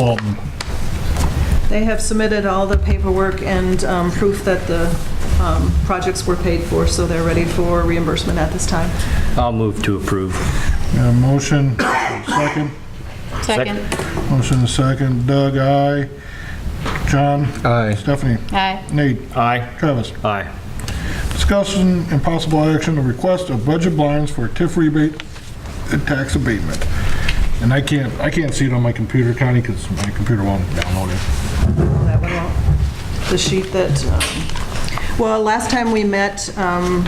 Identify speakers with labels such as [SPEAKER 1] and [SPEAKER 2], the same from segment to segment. [SPEAKER 1] Walton.
[SPEAKER 2] They have submitted all the paperwork and um, proof that the um, projects were paid for, so they're ready for reimbursement at this time.
[SPEAKER 3] I'll move to approve.
[SPEAKER 1] Got a motion, second.
[SPEAKER 4] Second.
[SPEAKER 1] Motion and second. Doug, aye. John?
[SPEAKER 3] Aye.
[SPEAKER 1] Stephanie?
[SPEAKER 4] Aye.
[SPEAKER 1] Nate?
[SPEAKER 3] Aye.
[SPEAKER 1] Travis?
[SPEAKER 3] Aye.
[SPEAKER 1] Discussion and possible action to request of budget blinds for TIF rebate and tax abatement. And I can't, I can't see it on my computer, Connie, because my computer won't download it.
[SPEAKER 2] That one won't- The sheet that, um, well, last time we met, um,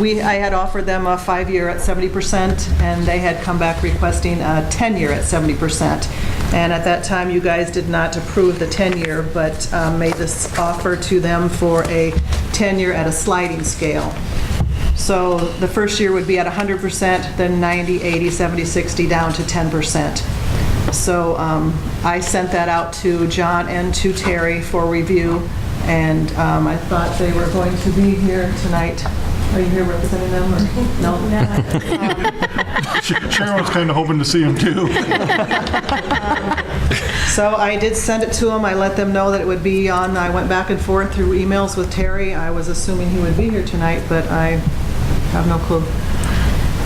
[SPEAKER 2] we, I had offered them a five-year at 70%, and they had come back requesting a 10-year at 70%. And at that time, you guys did not approve the 10-year, but um, made this offer to them for a 10-year at a sliding scale. So the first year would be at 100%, then 90, 80, 70, 60, down to 10%. So um, I sent that out to John and to Terry for review, and um, I thought they were going to be here tonight. Are you here representing them, or? No.
[SPEAKER 1] Sharon was kind of hoping to see him too.
[SPEAKER 2] So I did send it to them, I let them know that it would be on, I went back and forth through emails with Terry. I was assuming he would be here tonight, but I have no clue.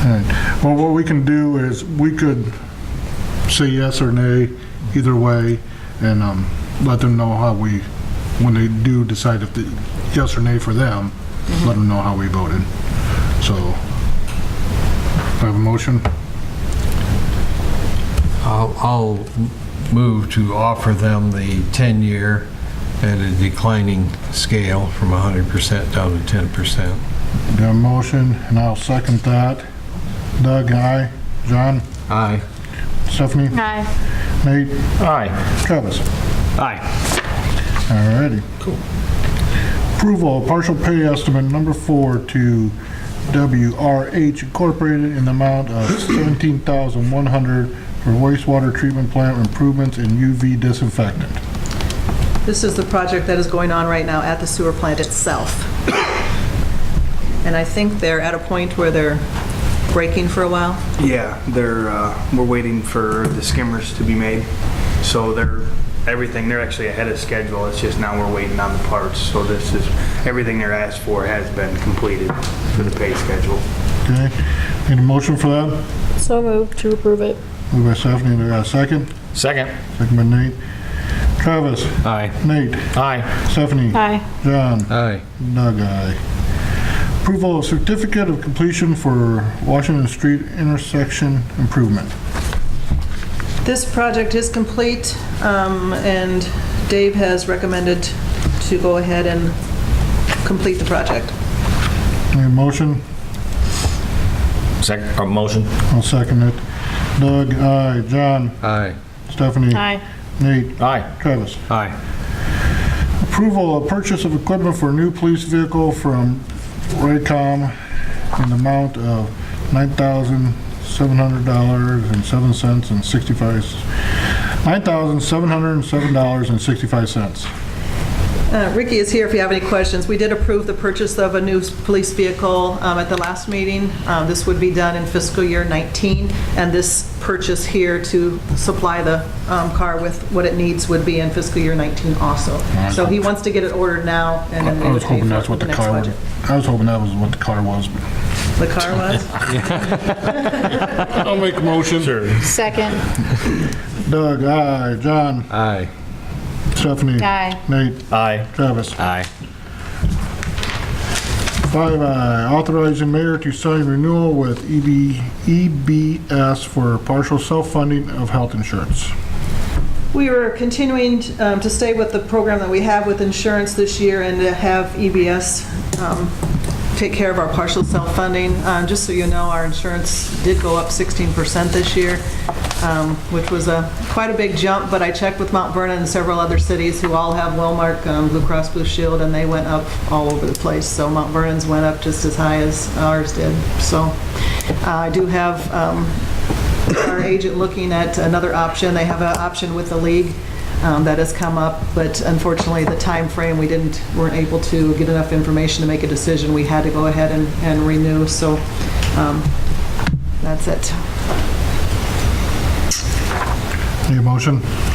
[SPEAKER 1] Alright. Well, what we can do is, we could say yes or nay, either way, and um, let them know how we, when they do decide if the, yes or nay for them, let them know how we voted. So, do I have a motion?
[SPEAKER 5] I'll, I'll move to offer them the 10-year at a declining scale from 100% down to 10%.
[SPEAKER 1] Got a motion, and I'll second that. Doug, aye. John?
[SPEAKER 5] Aye.
[SPEAKER 1] Stephanie?
[SPEAKER 4] Aye.
[SPEAKER 1] Nate?
[SPEAKER 3] Aye.
[SPEAKER 1] Travis?
[SPEAKER 3] Aye.
[SPEAKER 1] Alrighty. Cool. Approval of partial pay estimate number four to WRH Incorporated in the amount of $17,100 for wastewater treatment plant improvements and UV disinfectant.
[SPEAKER 2] This is the project that is going on right now at the sewer plant itself. And I think they're at a point where they're breaking for a while.
[SPEAKER 6] Yeah, they're, uh, we're waiting for the skimmers to be made. So they're, everything, they're actually ahead of schedule. It's just now we're waiting on the parts. So this is, everything they're asked for has been completed for the pay schedule.
[SPEAKER 1] Okay? Need a motion for that?
[SPEAKER 4] So moved to approve it.
[SPEAKER 1] Moved by Stephanie, do I got a second?
[SPEAKER 3] Second.
[SPEAKER 1] Second by Nate. Travis?
[SPEAKER 3] Aye.
[SPEAKER 1] Nate?
[SPEAKER 3] Aye.
[SPEAKER 1] Stephanie?
[SPEAKER 4] Aye.
[SPEAKER 1] John?
[SPEAKER 5] Aye.
[SPEAKER 1] Doug, aye. Approval of certificate of completion for Washington Street intersection improvement.
[SPEAKER 2] This project is complete, um, and Dave has recommended to go ahead and complete the project.
[SPEAKER 1] Need a motion?
[SPEAKER 3] Second, or motion?
[SPEAKER 1] I'll second it. Doug, aye. John?
[SPEAKER 5] Aye.
[SPEAKER 1] Stephanie?
[SPEAKER 4] Aye.
[SPEAKER 1] Nate?
[SPEAKER 3] Aye.
[SPEAKER 1] Travis?
[SPEAKER 3] Aye.
[SPEAKER 1] Approval of purchase of equipment for a new police vehicle from Raycom in the amount of $9,700.07 and 65, $9,707.65.
[SPEAKER 2] Uh, Ricky is here if you have any questions. We did approve the purchase of a new police vehicle um, at the last meeting. Uh, This would be done in fiscal year 19, and this purchase here to supply the um, car with what it needs would be in fiscal year 19 also. So he wants to get it ordered now, and then
[SPEAKER 1] I
[SPEAKER 2] we
[SPEAKER 1] was
[SPEAKER 2] would pay
[SPEAKER 1] hoping
[SPEAKER 2] for it
[SPEAKER 1] that's
[SPEAKER 2] for
[SPEAKER 1] what
[SPEAKER 2] the
[SPEAKER 1] the
[SPEAKER 2] next
[SPEAKER 1] car,
[SPEAKER 2] budget.
[SPEAKER 1] I was hoping that was what the car was.
[SPEAKER 2] The car was?
[SPEAKER 1] I'll make a motion. Sure.
[SPEAKER 4] Second.
[SPEAKER 1] Doug, aye. John?
[SPEAKER 5] Aye.
[SPEAKER 1] Stephanie?
[SPEAKER 4] Aye.
[SPEAKER 1] Nate?
[SPEAKER 3] Aye.
[SPEAKER 1] Travis?
[SPEAKER 3] Aye.
[SPEAKER 1] Five I, authorizing mayor to sign renewal with E EB, EBS for partial self-funding of health insurance.
[SPEAKER 2] We were continuing um, to stay with the program that we have with insurance this year and to have EBS um, take care of our partial self-funding. Um, Just so you know, our insurance did go up 16% this year, um, which was a, quite a big jump, but I checked with Mount Vernon and several other cities who all have Wellmark um, Blue Cross Blue Shield, and they went up all over the place. So Mount Vernon's went up just as high as ours did. So uh, I do have um, our agent looking at another option. They have an option with the league um, that has come up, but unfortunately, the time frame we didn't, weren't able to get enough information to make a decision. We had to go ahead and and renew, so um, that's it.
[SPEAKER 1] All Need a motion?